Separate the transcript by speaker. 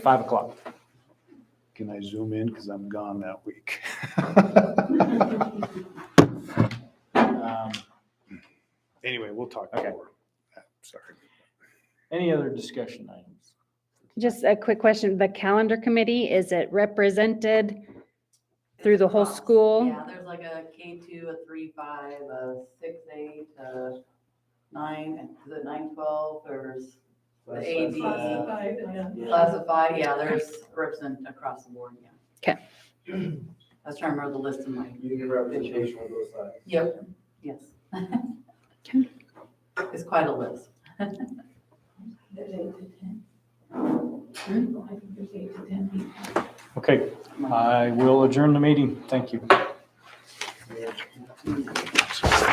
Speaker 1: Five o'clock.
Speaker 2: Can I zoom in? Because I'm gone that week.
Speaker 1: Um,
Speaker 2: Anyway, we'll talk
Speaker 1: Okay.
Speaker 2: more. Uh, Sorry.
Speaker 1: Any other discussion items?
Speaker 3: Just a quick question. The calendar committee, is it represented through the whole
Speaker 4: Across.
Speaker 3: school?
Speaker 4: Yeah, there's like a K two, a three, five, a six, eight, a nine, is it nine, twelve, there's the AD.
Speaker 5: Classified and.
Speaker 4: Uh, Classified, yeah, there's represent across the board, yeah.
Speaker 3: 'Kay.
Speaker 4: I was trying to remember the list in my,
Speaker 6: You get representation on both sides.
Speaker 4: yep, yes.
Speaker 3: 'Kay.
Speaker 4: It's quite a list.
Speaker 5: There's eight to ten. I think there's eight to ten people.
Speaker 1: Okay, I will adjourn the meeting. Thank you.
Speaker 4: Mm.